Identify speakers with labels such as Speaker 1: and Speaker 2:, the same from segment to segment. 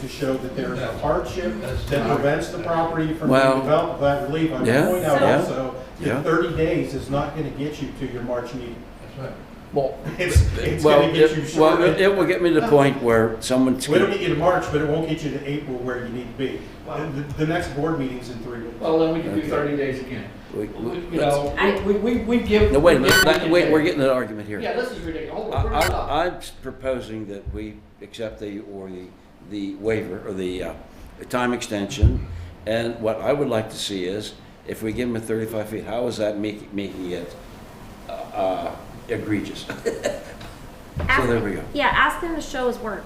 Speaker 1: to show that there is a hardship that prevents the property from being
Speaker 2: Well,
Speaker 1: developed, but I believe I would
Speaker 2: yeah,
Speaker 1: point out
Speaker 2: yeah,
Speaker 1: also,
Speaker 2: yeah.
Speaker 1: that thirty days is not gonna get you to your March meeting.
Speaker 2: Well,
Speaker 1: It's, it's
Speaker 2: well,
Speaker 1: gonna get you
Speaker 2: it, well,
Speaker 1: short.
Speaker 2: it it will get me to the point where someone's.
Speaker 1: It'll get you to March, but it won't get you to April where you need to be. The, the- the next board meeting's in three weeks.
Speaker 3: Well, then we can do
Speaker 2: Okay.
Speaker 3: thirty days again.
Speaker 2: we-
Speaker 3: We-
Speaker 2: we-
Speaker 3: You know,
Speaker 4: let's-
Speaker 3: we, we, we give.
Speaker 2: No, wait a
Speaker 3: we
Speaker 2: minute,
Speaker 3: give-
Speaker 2: Let- wait, we're getting an argument here.
Speaker 3: Yeah, this is ridiculous. Hold on,
Speaker 2: I-
Speaker 3: bring it up.
Speaker 2: I- I'm proposing that we accept the, or the, the waiver, or the uh, the time extension. And what I would like to see is, if we give them a 35 feet, how is that make- making it uh, uh, egregious?
Speaker 4: Ask-
Speaker 2: there we go.
Speaker 4: Yeah, ask them to show his work.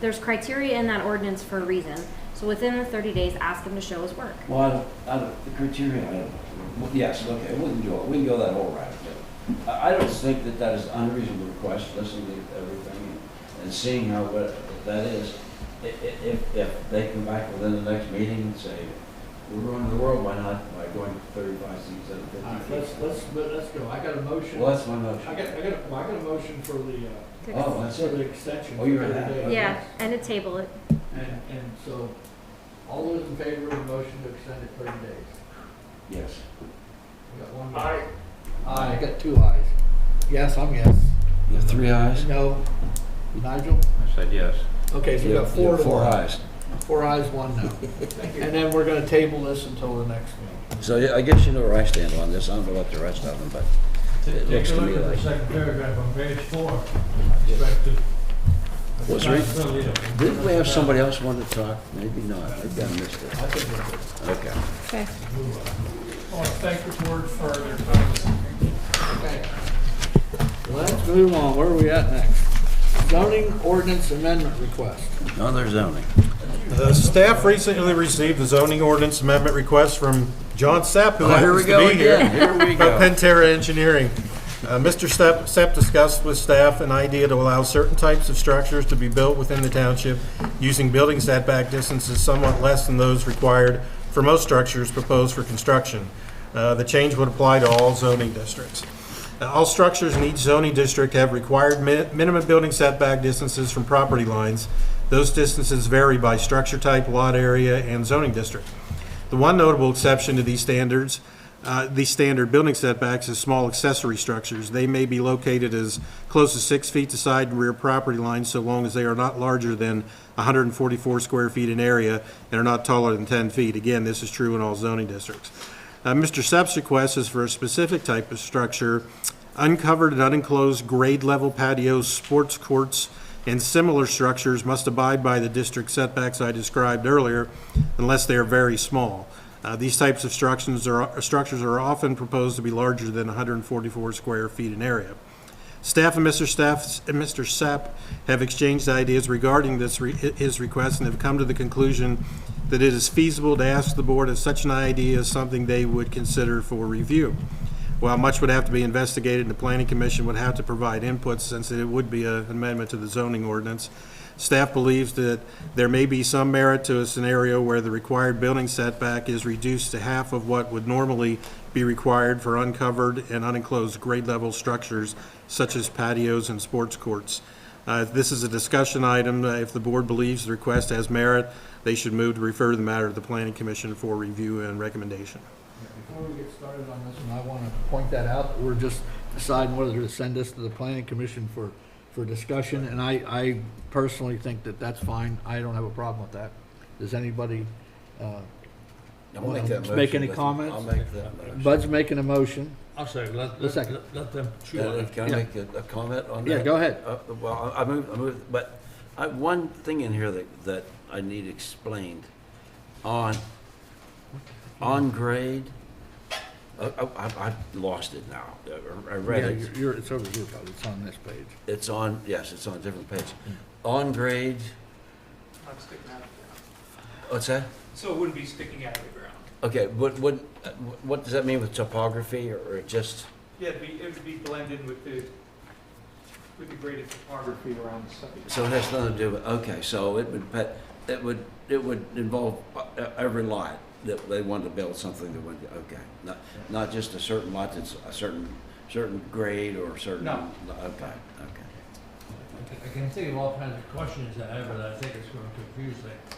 Speaker 4: There's criteria in that ordinance for a reason. So within the thirty days, ask him to show his work.
Speaker 2: Well, I don't, I don't, the criteria, I don't, well, yes, okay, we can do it, we can go that whole route. but I, I don't think that that is unreasonable request, listening to everything and- and seeing how, what that is. I- i- If, if they come back within the next meeting and say, we're ruining the world, why not, by going to thirty-five feet instead of
Speaker 3: All right,
Speaker 2: fifty
Speaker 3: let's,
Speaker 2: feet?
Speaker 3: let's, let's go. I got a motion.
Speaker 2: Well, that's my
Speaker 3: I
Speaker 2: motion.
Speaker 3: got, I got, a- well, I got a motion for the, uh,
Speaker 2: Oh, that's
Speaker 3: for the
Speaker 2: it.
Speaker 3: extension.
Speaker 2: Oh, you're
Speaker 3: for 30
Speaker 2: right.
Speaker 3: days.
Speaker 4: Yeah, and to table it.
Speaker 3: And, and so, all those in favor of the motion to extend it thirty days?
Speaker 2: Yes.
Speaker 3: We got one. Aye. Aye, I got two ayes. Yes, I'm yes.
Speaker 2: You have three eyes.
Speaker 3: No. Nigel?
Speaker 5: I said yes.
Speaker 3: Okay, so we got four to
Speaker 2: Four
Speaker 3: one.
Speaker 2: eyes.
Speaker 3: Four ayes, one no. And then we're gonna table this until the next meeting.
Speaker 2: So yeah, I guess you know where I stand on this, I don't know about the rest of them, but. It looks
Speaker 6: Take a
Speaker 2: to
Speaker 6: look
Speaker 2: me
Speaker 6: at the
Speaker 2: like-
Speaker 6: second paragraph on page four. Expected.
Speaker 2: What's right? Didn't we have somebody else want to talk? Maybe not, maybe I missed it. Okay.
Speaker 4: Okay.
Speaker 6: I want to thank the board for their time.
Speaker 3: Let's move on, where are we at next? Zoning ordinance amendment request.
Speaker 2: No, there's zoning.
Speaker 1: The staff recently received the zoning ordinance amendment request from John Sapp, who
Speaker 2: Oh, here we
Speaker 1: happens
Speaker 2: go
Speaker 1: to be here.
Speaker 2: again, here we
Speaker 1: By
Speaker 2: go.
Speaker 1: Pentair Engineering. Uh, Mr. Sepp Sepp discussed with staff an idea to allow certain types of structures to be built within the township using building setback distances somewhat less than those required for most structures proposed for construction. Uh, The change would apply to all zoning districts. Uh, All structures in each zoning district have required mi- minimum building setback distances from property lines. Those distances vary by structure type, lot area, and zoning district. The one notable exception to these standards, uh, these standard building setbacks is small accessory structures. They may be located as close as six feet to side and rear property lines so long as they are not larger than 144 square feet in area and are not taller than 10 feet. Again, this is true in all zoning districts. Uh, Mr. Sepp's request is for a specific type of structure, uncovered and unenclosed grade-level patios, sports courts, and similar structures must abide by the district setbacks I described earlier unless they are very small. Uh, These types of structures are, structures are often proposed to be larger than 144 square feet in area. Staff and Mr. Staff and Mr. Sapp have exchanged ideas regarding this, re- his request, and have come to the conclusion that it is feasible to ask the board if such an idea is something they would consider for review. While much would have to be investigated, the planning commission would have to provide input since it would be an amendment to the zoning ordinance. Staff believes that there may be some merit to a scenario where the required building setback is reduced to half of what would normally be required for uncovered and unenclosed grade-level structures such as patios and sports courts. Uh, This is a discussion item. Uh, If the board believes the request has merit, they should move to refer the matter to the planning commission for review and recommendation.
Speaker 3: Before we get started on this, and I want to point that out, that we're just deciding whether to send this to the planning commission for, for discussion, and I, I personally think that that's fine, I don't have a problem with that. Does anybody, uh,
Speaker 2: I'll make that
Speaker 3: Make any
Speaker 2: motion.
Speaker 3: comments?
Speaker 2: I'll make that motion.
Speaker 3: Bud's making a motion,
Speaker 6: I'll say, let,
Speaker 3: A second.
Speaker 6: let- let them chew on
Speaker 2: Uh,
Speaker 6: it.
Speaker 2: Can I
Speaker 3: Yeah.
Speaker 2: make a a comment on that?
Speaker 3: Yeah, go ahead.
Speaker 2: Uh, Well, I I moved, I moved, but I, one thing in here that, that I need explained, on, on grade, I, I, I've lost it now, I- I read
Speaker 3: yeah,
Speaker 2: it.
Speaker 3: you're, you're- it's over here, Bud, it's on this page.
Speaker 2: It's on, yes, it's on a different page. On grade,
Speaker 7: not sticking out of the ground.
Speaker 2: what's that?
Speaker 7: So it wouldn't be sticking out of the ground.
Speaker 2: Okay, what, what, uh, what does that mean with topography or or just,
Speaker 7: Yeah, it'd be, it would be blended with the, with the graded topography around the site.
Speaker 2: so it has nothing to do with, okay, so it would, pet- it would, it would involve uh, every lot that they wanted to build something that would, okay. Not, not just a certain lot that's a certain, certain grade or certain.
Speaker 7: No.
Speaker 2: Okay, okay.
Speaker 6: I can- I can think of all kinds of questions I have, but I think it's going to confuse things.